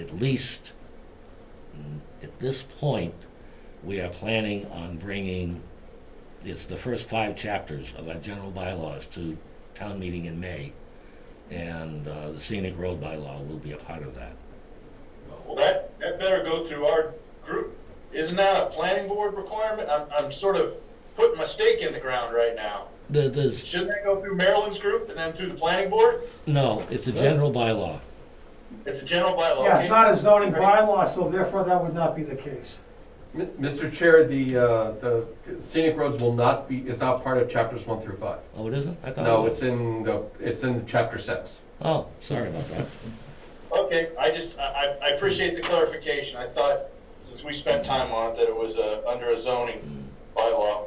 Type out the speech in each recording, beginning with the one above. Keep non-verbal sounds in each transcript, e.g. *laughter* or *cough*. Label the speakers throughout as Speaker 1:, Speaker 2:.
Speaker 1: at least mm, at this point, we are planning on bringing, it's the first five chapters of our general bylaws to town meeting in May. And uh, the scenic road bylaw will be a part of that.
Speaker 2: Well, that, that better go through our group. Isn't that a planning board requirement? I'm, I'm sort of putting my stake in the ground right now.
Speaker 1: There- There's,
Speaker 2: Shouldn't that go through Maryland's group and then through the planning board?
Speaker 1: no, it's a general bylaw.
Speaker 2: It's a general bylaw.
Speaker 3: Yeah,
Speaker 2: okay?
Speaker 3: it's not a zoning bylaw, so therefore that would not be the case.
Speaker 4: Mi- Mr. Chair, the, uh, the scenic roads will not be, is not part of chapters one through five.
Speaker 1: Oh, it isn't? I thought. it
Speaker 4: No,
Speaker 1: was.
Speaker 4: it's in the, it's in chapter six.
Speaker 1: Oh, sorry about that.
Speaker 2: Okay, I just, I, I I appreciate the clarification. I thought, since we spent time on it, that it was, uh, under a zoning bylaw.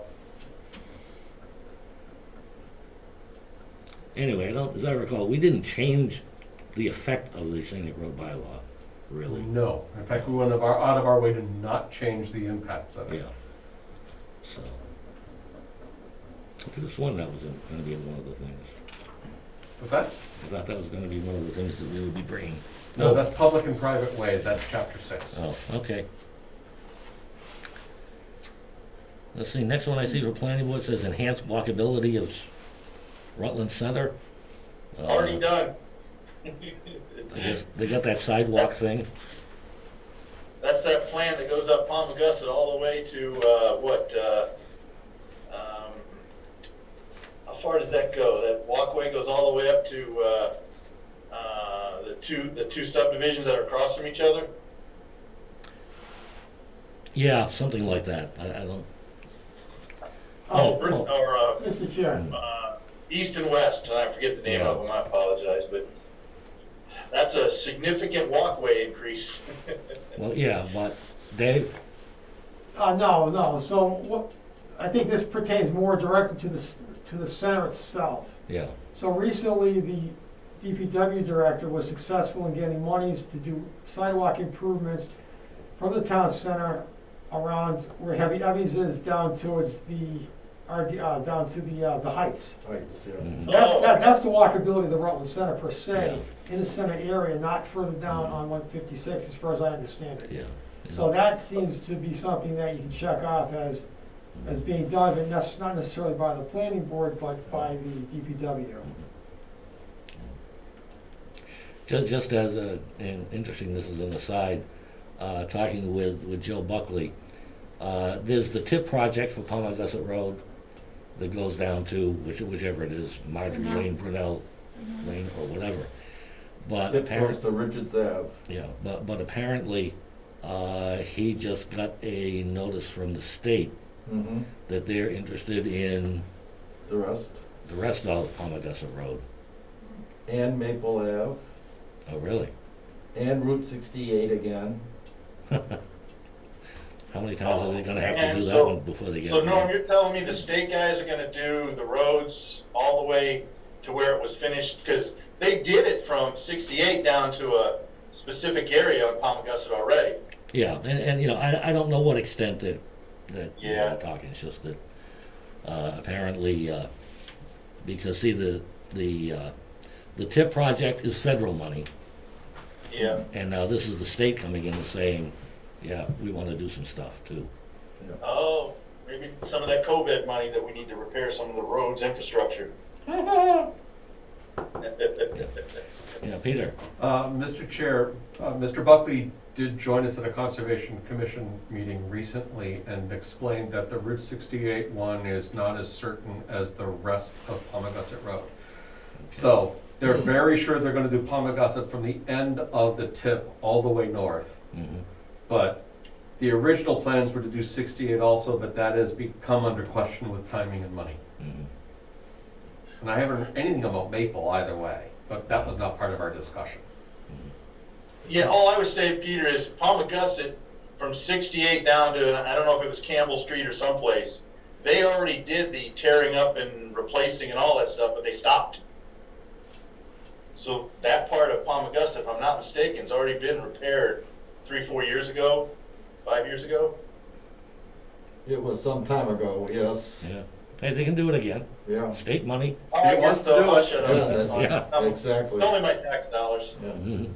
Speaker 1: Anyway, I don't, as I recall, we didn't change the effect of the scenic road bylaw, really.
Speaker 4: No, in fact, we went of our, out of our way to not change the impacts of it.
Speaker 1: Yeah. So. I could have sworn that was gonna be one of the things.
Speaker 4: What's that?
Speaker 1: I thought that was gonna be one of the things that we would be bringing.
Speaker 4: No, that's public and private ways, that's chapter six.
Speaker 1: Oh, okay. Let's see, next one I see for planning board says enhance walkability of Rutland Center. Uh,
Speaker 2: Already done. *laughs*
Speaker 1: I guess They got that sidewalk thing.
Speaker 2: That's that plan that goes up Palmagussit all the way to, uh, what, uh, um, how far does that go? That walkway goes all the way up to, uh, uh, the two, the two subdivisions that are across from each other?
Speaker 1: Yeah, something like that. I, I don't,
Speaker 2: Oh, Bris- or, uh,
Speaker 3: Mr. Chair,
Speaker 2: uh, east and west, and I forget the name of them, I apologize, but that's a significant walkway increase. *laughs*
Speaker 1: well, yeah, but Dave,
Speaker 3: uh, no, no, so what, I think this pertains more directly to the, s- to the center itself.
Speaker 1: yeah,
Speaker 3: So recently, the DPW director was successful in getting monies to do sidewalk improvements from the town center around where Heavy Evvies is down towards the, or, the, uh, down to the, uh, the heights.
Speaker 1: mhm,
Speaker 3: That's,
Speaker 2: Oh.
Speaker 3: that, that's the walkability of the Rutland Center per se, in the center area, not further down on one fifty-six, as far as I understand it.
Speaker 1: yeah.
Speaker 3: So that seems to be something that you can check off as, as being done, and that's not necessarily by the planning board, but by the DPW.
Speaker 1: Just, just as a, and interesting, this is an aside, uh, talking with, with Joe Buckley, uh, there's the tip project for Palmagussit Road that goes down to which, whichever it is, Marjorie
Speaker 5: Brunel.
Speaker 1: Lane, Brunel Lane, or whatever. But
Speaker 6: Tip goes
Speaker 1: apparently,
Speaker 6: to Richards Ave.
Speaker 1: yeah, but, but apparently, uh, he just got a notice from the state
Speaker 6: Mm-hmm.
Speaker 1: that they're interested in
Speaker 6: The rest.
Speaker 1: the rest of Palmagussit Road.
Speaker 6: And Maple Ave.
Speaker 1: Oh, really?
Speaker 6: And Route 68 again.
Speaker 1: How many times are they gonna have to
Speaker 2: And
Speaker 1: do that
Speaker 2: so-
Speaker 1: one before they get?
Speaker 2: So
Speaker 1: it
Speaker 2: Norm,
Speaker 1: done?
Speaker 2: you're telling me the state guys are gonna do the roads all the way to where it was finished? Because they did it from sixty-eight down to a specific area on Palmagussit already.
Speaker 1: Yeah, and, and you know, I, I don't know what extent that, that
Speaker 2: Yeah.
Speaker 1: we're talking, it's just that, uh, apparently, uh, because see, the, the, uh, the TIP project is federal money,
Speaker 2: Yeah.
Speaker 1: and now this is the state coming in and saying, yeah, we wanna do some stuff too.
Speaker 2: Oh, maybe some of that COVID money that we need to repair some of the roads infrastructure. *laughs*
Speaker 1: Yeah, Peter,
Speaker 4: Uh, Mr. Chair, uh, Mr. Buckley did join us at a Conservation Commission meeting recently and explained that the Route 68 one is not as certain as the rest of Palmagussit Road. So they're very sure they're gonna do Palmagussit from the end of the tip all the way north.
Speaker 1: Mhm.
Speaker 4: But the original plans were to do 68 also, but that has become under question with timing and money.
Speaker 1: Mhm.
Speaker 4: And I haven't heard anything about Maple either way, but that was not part of our discussion.
Speaker 2: Yeah, all I would say, Peter, is Palmagussit from sixty-eight down to, and I don't know if it was Campbell Street or someplace, they already did the tearing up and replacing and all that stuff, but they stopped. So that part of Palmagussit, if I'm not mistaken, has already been repaired three, four years ago, five years ago.
Speaker 6: It was some time ago, yes.
Speaker 1: yeah, hey, they can do it again,
Speaker 6: Yeah.
Speaker 1: state money,
Speaker 2: All right,
Speaker 4: wants
Speaker 2: so
Speaker 4: to do
Speaker 2: I'll
Speaker 4: it.
Speaker 2: shut
Speaker 6: Yeah,
Speaker 2: up, that's fine.
Speaker 6: that's-
Speaker 2: I'm-
Speaker 6: Exactly.
Speaker 2: It's only my tax dollars.
Speaker 6: Yeah.
Speaker 1: Mhm.